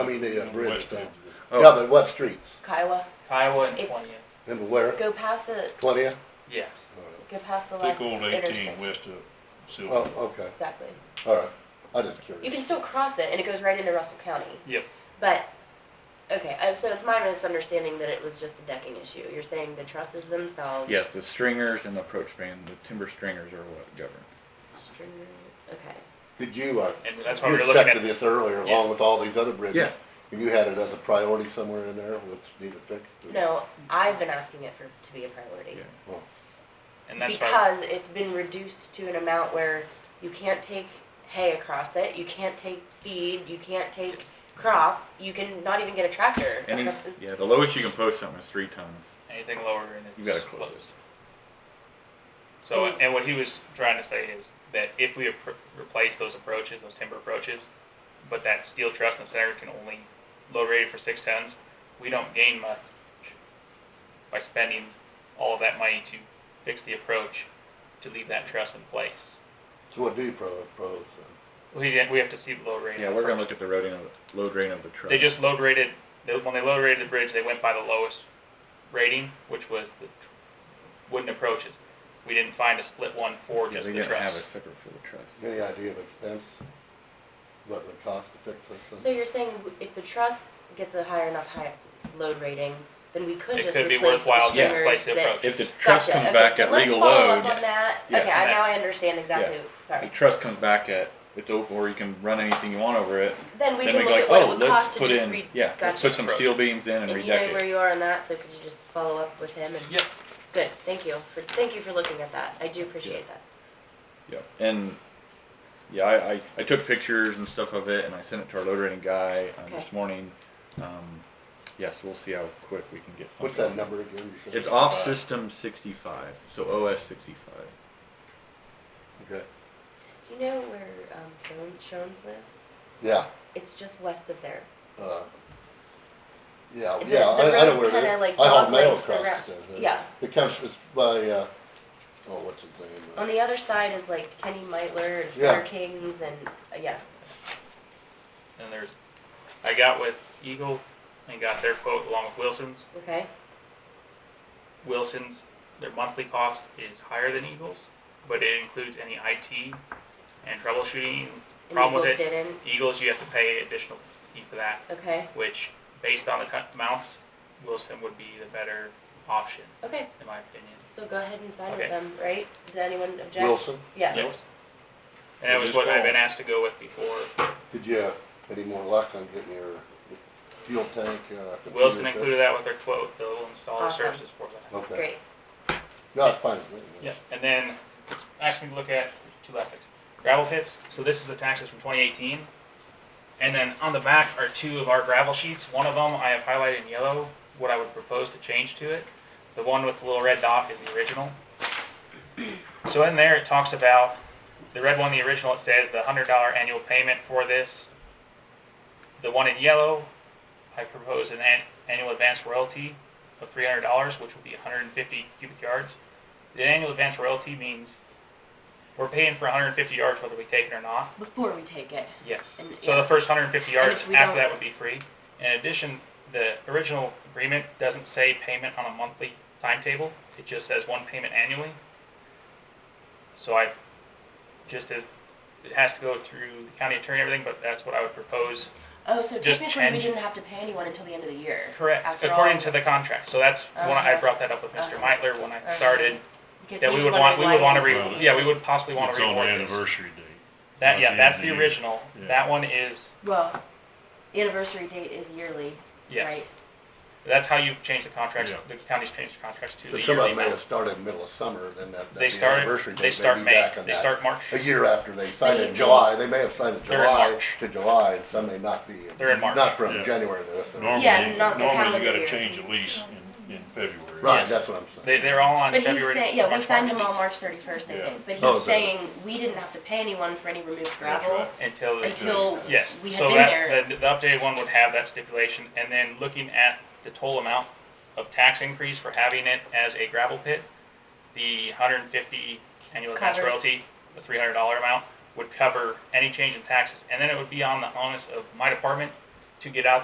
I mean, the uh, bridge West thing. End. Oh. Yeah, but what streets? Kiowa, Kiowa and It's- twentieth, And where? go past the, Twentieth? yes. go past the last Take old eighteen intersection. west of Oh, Silver. okay, Exactly. all right. I just You curious. can still cross it and it goes right into Russell County. Yep. But, okay, uh, so it's my misunderstanding that it was just a decking issue. You're saying the trusses themselves? Yes, the stringers and the approach span, the timber stringers are what govern. String- Okay. Did you, uh, And that's why you we were looking expected at, this earlier, along with all these other bridges? Yeah. You had it as a priority somewhere in there, which need to fix? No, I've been asking it for, to be a priority. Yeah. and that's why, Because it's been reduced to an amount where you can't take hay across it, you can't take feed, you can't take crop, you can not even get a tractor. Any, across this- yeah, the lowest you can post something is three tons. anything lower and You gotta it's close closed. So, and what he was trying to say is that if we appro- replace those approaches, those timber approaches, but that steel truss in the center can only load rated for six tons, we don't gain much by spending all of that money to fix the approach to leave that truss in place. So what do you pro- propose? then? We, we have to see the load rating. Yeah, we're gonna look first. at the loading of, load rating of the truck. They just load rated, they, when they load rated the bridge, they went by the lowest rating, which was the tr- wooden approaches. We didn't find a split one for Yeah, just they the didn't have a truss. separate for the truss. Any idea of expense? What it would cost to fix this So thing? you're saying if the truss gets a high enough high load rating, then we could It just could be replace the worthwhile to stringers replace the that. approach. If the truss Gotcha, comes okay, back so at let's legal follow load, up on that. Yeah. Okay, I- now I That's- understand exactly, the sorry. truss comes back at, it's open, or you can run anything you want over it. Then we Then can we go look like, at what it oh, would cost let's to put just in, read. yeah, let's gotcha. put some steel beams in and And you know redeck where it. you are on that, so could you just follow up with him and? Yep. Good, thank you, for, thank you for looking at that, I do appreciate that. Yeah, and, yeah, I, I, I took pictures and stuff of it and I sent it to our load rating guy, um, this Okay. morning. Um, yes, we'll see how quick we can get something. What's that number again? You said It's off 55. system sixty-five, so OS sixty-five. Okay, Do you know where, um, Joan- Shones live? yeah, It's just west of there. uh, yeah, The- yeah, the I, I know road where it kinda, is. like, I haul mail doglegs across it around- there, but yeah. It comes, it's by, uh, oh, what's his name? uh, On the other side is like Kenny Meitler and Yeah. Fair Kings and, uh, yeah, And there's, I got with Eagle and got their quote along with Wilson's. okay? Wilson's, their monthly cost is higher than Eagle's, but it includes any IT and troubleshooting. And Eagles Problem with it, didn't, Eagles, you have to pay additional fee for that, okay, which based on the t- amounts, Wilson would be the better option, okay, in my opinion. so go ahead and sign with Okay. them, right? Did anyone object? Wilson, Yeah, Eagles. And that was what I've been asked to go with before. did you have any more luck on getting your fuel tank, uh? computer Wilson set? included that with their quote, they'll install the Awesome. services for that. Okay, great, no, it's fine. with me, Yeah, and then asked me to look at two last things. Gravel pits, so this is the taxes from twenty eighteen. And then on the back are two of our gravel sheets. One of them I have highlighted in yellow, what I would propose to change to it. The one with the little red dot is the original. So in there, it talks about, the red one, the original, it says the hundred dollar annual payment for this. The one in yellow, I propose an an- annual advance royalty of three hundred dollars, which would be hundred and fifty cubic yards. The annual advance royalty means we're paying for 150 yards whether we take it or not. before we take it, Yes. And- So yeah. the first 150 And yards if we after don't- that would be free. In addition, the original agreement doesn't say payment on a monthly timetable. It just says one payment annually. So I just as it has to go through the county attorney and everything, but that's what I would propose. Oh, so Just technically, we change- didn't have to pay anyone until the end of the year? Correct. After According all- to the contract. So that's when I Uh-huh. brought that up with mister Uh-huh. Meitler when I Uh-huh. started. Because That he we was would want, we wondering would why want to he re, was- yeah, we would possibly want It's to on the reorder this. anniversary date. That, Not yeah, the that's end the of the year. original. Yeah. That one is, Well, the anniversary date is yearly, yes. right? That's how you've changed the contracts, Yeah. the county's changed the contracts to So the some of yearly them may have amount. started in the middle of summer, then that, They that'd be anniversary start, date. they they'd start be May, back on they that. start March. A year after they signed They it in usually- July, they may have signed in They're in July March. to July, and some may not be. They're in March. Not from Yeah. January to this. or- Yeah, Normally, not the normally calendar you gotta year. change a lease in, in February. Right, Yes. that's what I'm They, saying. they're all on But he's February. saying, yeah, we March signed him on release March thirty-first, I Yeah. think, but Oh, he's okay. saying we didn't have to pay anyone for any removed gravel Until, the- until yes. we had So been that, there. the, the updated one would have that stipulation, and then looking at the total amount of tax increase for having it as a gravel pit, the hundred and fifty annual tax Covers. royalty, the three hundred dollar amount, would cover any change in taxes, and then it would be on the onus of my department to get out